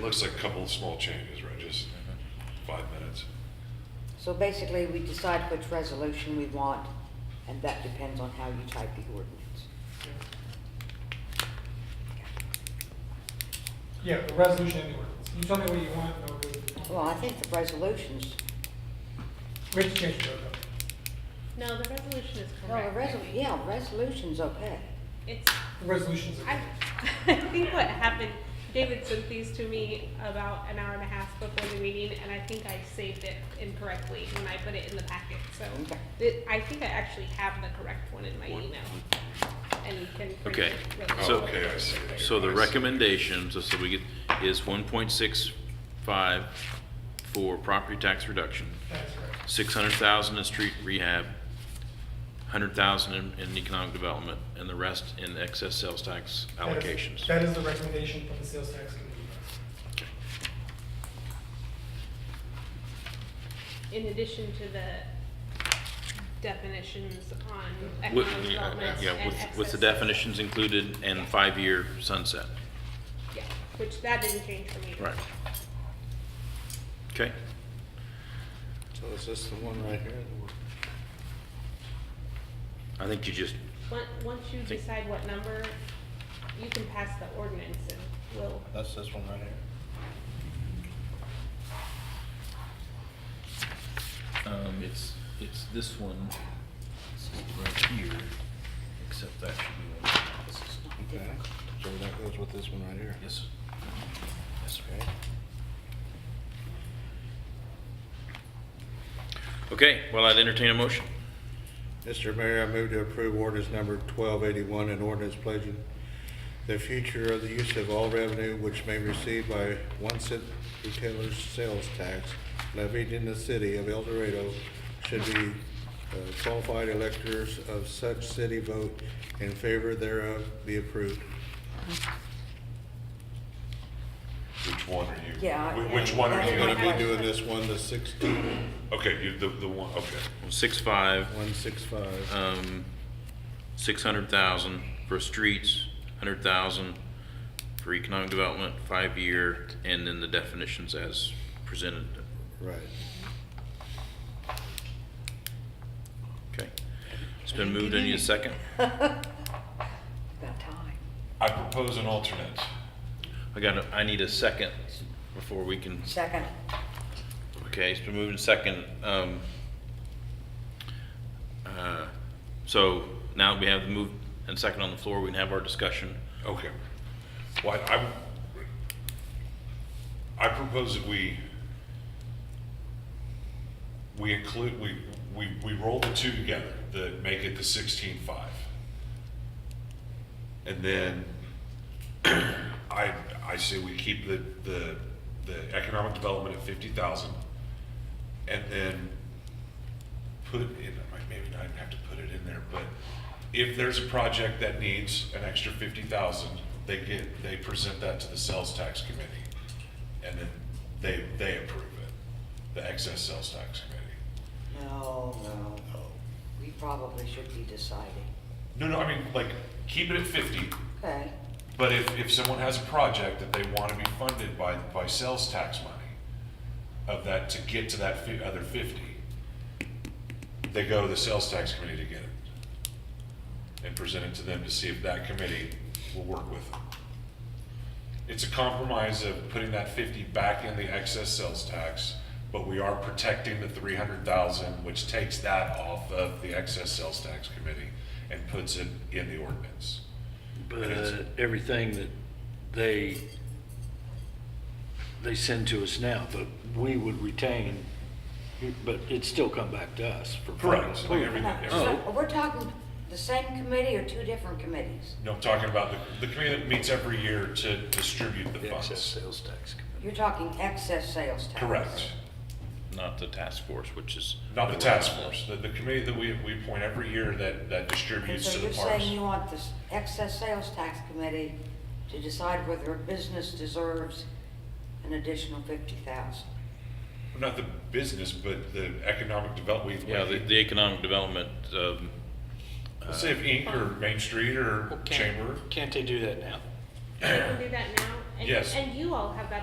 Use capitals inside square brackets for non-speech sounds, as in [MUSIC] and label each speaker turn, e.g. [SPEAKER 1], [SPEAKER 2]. [SPEAKER 1] Looks like a couple of small changes, right, just five minutes.
[SPEAKER 2] So basically, we decide which resolution we want, and that depends on how you type the ordinance.
[SPEAKER 3] Yeah, the resolution and the ordinance. You tell me what you want, and I'll do it.
[SPEAKER 2] Well, I think the resolutions,
[SPEAKER 3] We have to change the logo.
[SPEAKER 4] No, the resolution is
[SPEAKER 2] well,
[SPEAKER 4] correct.
[SPEAKER 2] the resol, yeah, resolution's okay.
[SPEAKER 4] It's,
[SPEAKER 3] The resolution's
[SPEAKER 4] I, [LAUGHS]
[SPEAKER 3] okay.
[SPEAKER 4] I think what happened, David sent these to me about an hour and a half before the meeting, and I think I saved it incorrectly when I put it in the packet, so.
[SPEAKER 2] Okay.
[SPEAKER 4] it- I think I actually have the correct one in my email, and you can. print
[SPEAKER 5] Okay,
[SPEAKER 4] it really
[SPEAKER 1] Oh,
[SPEAKER 5] So-
[SPEAKER 1] Okay, I see.
[SPEAKER 5] So the
[SPEAKER 1] I see.
[SPEAKER 5] recommendation, so, so we get, is one point six five for property tax reduction,
[SPEAKER 3] That's right.
[SPEAKER 5] six hundred thousand in street rehab, hundred thousand in, in economic development, and the rest in excess sales tax
[SPEAKER 3] That is-
[SPEAKER 5] allocations.
[SPEAKER 3] That is the recommendation from the sales tax committee.
[SPEAKER 4] In addition to the definitions on
[SPEAKER 5] With,
[SPEAKER 4] economic development
[SPEAKER 5] yeah,
[SPEAKER 4] and
[SPEAKER 5] with, with the
[SPEAKER 4] excess-
[SPEAKER 5] definitions included and five-year sunset.
[SPEAKER 4] Yeah, which that didn't change for me.
[SPEAKER 5] Right. Okay,
[SPEAKER 6] So is this the one right here? that we're-
[SPEAKER 5] I think you just,
[SPEAKER 4] Once, once you
[SPEAKER 5] Think-
[SPEAKER 4] decide what number, you can pass the ordinance and we'll,
[SPEAKER 6] That's this one right here?
[SPEAKER 7] Um, it's, it's this one right here, except that should be one. This is-
[SPEAKER 6] Okay, so that goes with this one right here?
[SPEAKER 7] Yes. Yes, sir.
[SPEAKER 6] Okay.
[SPEAKER 5] okay, well, I'd entertain a motion.
[SPEAKER 6] Mr. Mayor, I move to approve ordinance number 1281, an ordinance pledging the future of the use of all revenue which may be received by one cent retailer's sales tax levied in the city of El Dorado should be uh, qualified electors of such city vote in favor thereof be approved.
[SPEAKER 1] Which one are you?
[SPEAKER 2] Yeah,
[SPEAKER 1] whi-
[SPEAKER 2] I-
[SPEAKER 1] Which one are
[SPEAKER 2] I-
[SPEAKER 1] you
[SPEAKER 6] I'm gonna
[SPEAKER 1] gonna
[SPEAKER 6] be doing this one, the 16,
[SPEAKER 1] be? Okay, you, the, the one, okay.
[SPEAKER 5] Six-five,
[SPEAKER 6] 165.
[SPEAKER 5] um, six hundred thousand for streets, hundred thousand for economic development, five-year, and then the definitions as presented.
[SPEAKER 6] Right.
[SPEAKER 5] Okay. It's been moved. I need a second.
[SPEAKER 2] About time.
[SPEAKER 1] I propose an alternate.
[SPEAKER 5] I got, a- I need a second before we can,
[SPEAKER 2] Second,
[SPEAKER 5] okay, it's been moved and second. Um, uh, so now we have the move and second on the floor. We can have our discussion.
[SPEAKER 1] Okay. Well, I, I'm- I propose that we, we include, we, we, we roll the two together, that make it the sixteen-five. And then, [CLEARS THROAT] I, I say we keep the, the, the economic development at fifty thousand. And then put in, like, maybe not even have to put it in there, but if there's a project that needs an extra fifty thousand, they get, they present that to the sales tax committee. And then they, they approve it, the excess sales tax committee.
[SPEAKER 2] no, no, no, we probably should be deciding.
[SPEAKER 1] No, no, I mean, like, keep it at fifty,
[SPEAKER 2] Okay,
[SPEAKER 1] but if, if someone has a project that they wanna be funded by, by sales tax money of that, to get to that fi- other fifty, they go to the sales tax committee to get it. And present it to them to see if that committee will work with them. It's a compromise of putting that fifty back in the excess sales tax, but we are protecting the three hundred thousand, which takes that off of the excess sales tax committee and puts it in the ordinance.
[SPEAKER 8] But uh,
[SPEAKER 1] Yes.
[SPEAKER 8] everything that they, they send to us now, but we would retain, but it'd still come back to us for.
[SPEAKER 1] Correct, like
[SPEAKER 8] approval.
[SPEAKER 1] everything, everything.
[SPEAKER 2] so we're talking the same committee or two different committees?
[SPEAKER 1] No, I'm talking about the, the committee that meets every year to distribute the
[SPEAKER 8] The excess
[SPEAKER 1] funds.
[SPEAKER 8] sales tax.
[SPEAKER 2] You're talking excess sales tax.
[SPEAKER 1] Correct.
[SPEAKER 5] Not the task force, which is.
[SPEAKER 1] Not the task force, the, the committee that we, we appoint every year that, that
[SPEAKER 2] And
[SPEAKER 1] distributes
[SPEAKER 2] so
[SPEAKER 1] to the
[SPEAKER 2] you're
[SPEAKER 1] parks.
[SPEAKER 2] saying you want this excess sales tax committee to decide whether a business deserves an additional fifty thousand?
[SPEAKER 1] Not the business, but the economic development.
[SPEAKER 5] Yeah, the, the economic development, um,
[SPEAKER 1] Let's say if Inc. or Main Street or Chamber.
[SPEAKER 8] Can't they do that now?
[SPEAKER 4] You can do that now. and-
[SPEAKER 1] Yes.
[SPEAKER 4] And you all have that